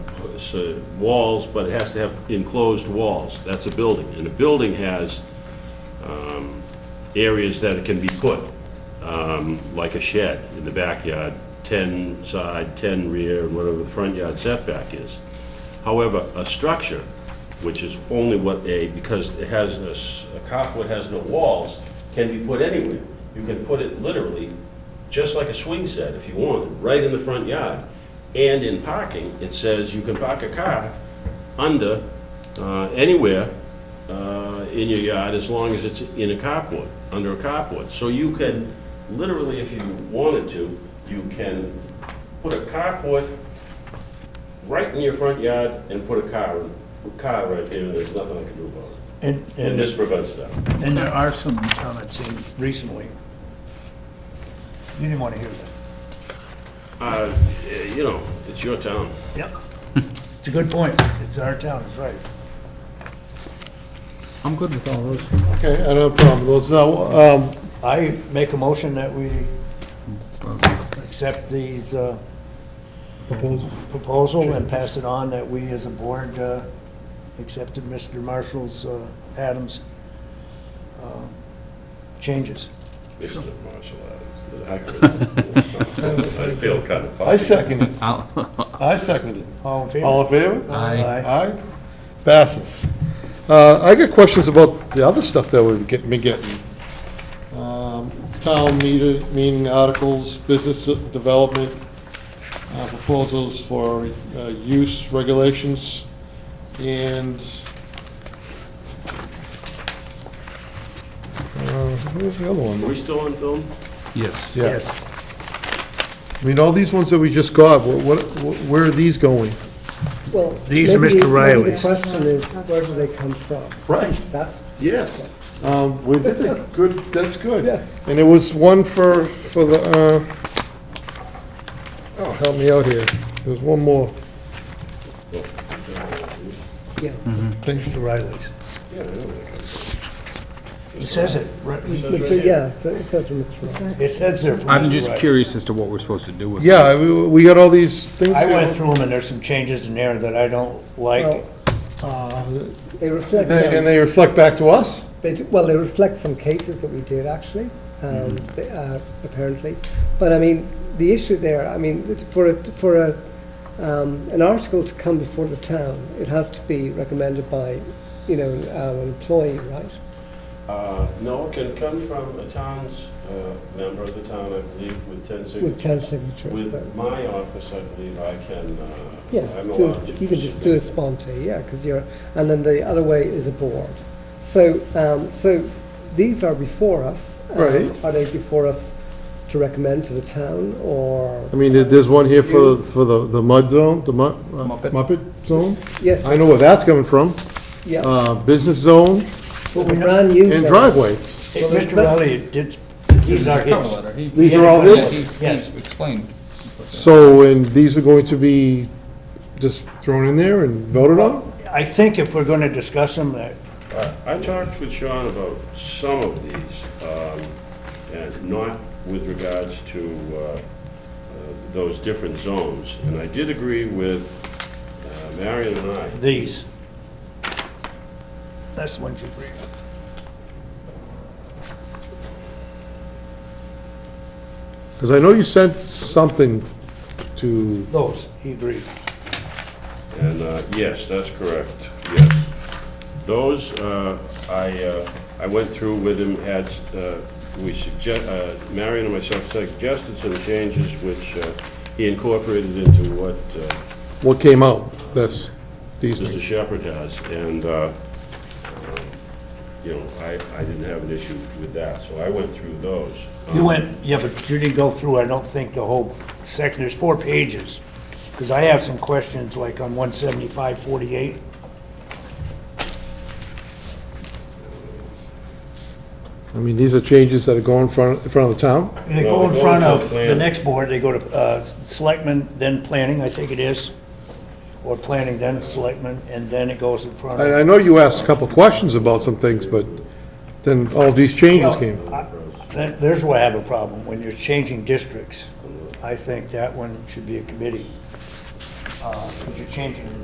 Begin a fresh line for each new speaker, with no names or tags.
so walls, but it has to have enclosed walls. That's a building. And a building has um, areas that it can be put, um, like a shed in the backyard, 10 side, 10 rear, and whatever the front yard setback is. However, a structure, which is only what a, because it has, a s- a carport has no walls, can be put anywhere. You can put it literally, just like a swing set if you wanted, right in the front yard. And in parking, it says you can park a car under, uh, anywhere uh, in your yard as long as it's in a carport, under a carport. So you can, literally, if you wanted to, you can put a carport right in your front yard and put a car, car right there, and there's nothing I can do about it.
And,
And this
and,
prevents that.
and there are some in town I've seen recently. You didn't want to hear that.
Uh, You know, it's your town.
Yep. It's a good point. It's our town, it's right.
I'm good with all those.
Okay, I don't have a problem with those. Now, um,
I make a motion that we accept these, uh,
proposed,
proposal and pass it on that we as a board, uh, accepted Mr. Marshall's, uh, Adams, uh, changes.
Mr. Marshall Adams. I feel kind of.
I second it.
I'll-
I second it.
All in favor?
All in favor?
I,
Aye. Passes. Uh, I got questions about the other stuff that we've get- been getting. Um, Town meter, meeting articles, business development, uh, proposals for uh, use regulations, and... uh, Where's the other
Are
one?
we still on film?
yes.
Yeah. I mean, all these ones that we just got, wh- what, wh- where are these going?
Well,
These are
maybe-
Mr.
Maybe the
Riley's.
question is, where do they come from?
Right.
That's,
Yes. Um, we did that, good, that's good.
Yes.
And there was one for, for the, uh, oh, help me out here, there's one more.
yeah,
Thank you.
Mr. Riley's. It says it. right-
Mr. yeah, so it says from Mr. Riley.
It says there for
I'm
Mr.
just
Riley.
curious as to what we're supposed to do with.
Yeah, I- we, we got all these things.
I went
here.
through them, and there's some changes in there that I don't like.
Well, They reflect,
They- And
um,
they reflect back to us?
they, do- well, they reflect some cases that we did actually, um, they- uh, apparently. But I mean, the issue there, I mean, it's for a, for a, um, an article to come before the town, it has to be recommended by, you know, um, an employee, right?
Uh, No, it can come from a town's, uh, member of the town, I believe, with 10
With
signatures.
ten signatures, so.
With my office, I believe I can, uh,
Yeah,
I'm
sui-
allowed to.
you can just sui
submit.
sponte, yeah, because you're, and then the other way is a board. So, um, so these are before us. Um,
Right.
Are they before us to recommend to the town or?
I mean, there- there's one here for, for the, the mud zone, the mu- uh,
Muppet.
Muppet zone?
Yes,
I know where that's coming from,
yeah,
uh, business zone
but we brand new.
and
zone.
driveways.
Hey, Mr. Riley did, these are his.
These are all his?
Yes.
explained.
So, and these are going to be just thrown in there and voted on?
I think if we're gonna discuss them, that,
Uh, I talked with Sean about some of these, um, and not with regards to uh, uh, those different zones. And I did agree with uh, Marion and I,
these. That's the ones you bring up.
Because I know you sent something to,
Those, he agreed.
and uh, yes, that's correct, yes. Those, uh, I, uh, I went through with him, had, uh, we suggest, uh, Marion and myself suggested some changes which uh, he incorporated into what uh,
what came out, this, these
Mr.
things.
Shepherd has, and, uh, um, you know, I, I didn't have an issue with that, so I went through those.
You
Um,
went, yeah, but you didn't go through, I don't think, the whole section, there's four pages. Because I have some questions, like on one seventy-five forty-eight.
I mean, these are changes that are going in front, in front of the town.
They
Well,
go in
they go
front
to
of the
planning.
next board, they go to uh, selectmen, then planning, I think it is, or planning, then selectmen, and then it goes in front
And
of.
I know you asked a couple of questions about some things, but then all these changes came.
Well, I- that- There's where I have a problem, when you're changing districts. I think that one should be a committee. Because Uh, you're changing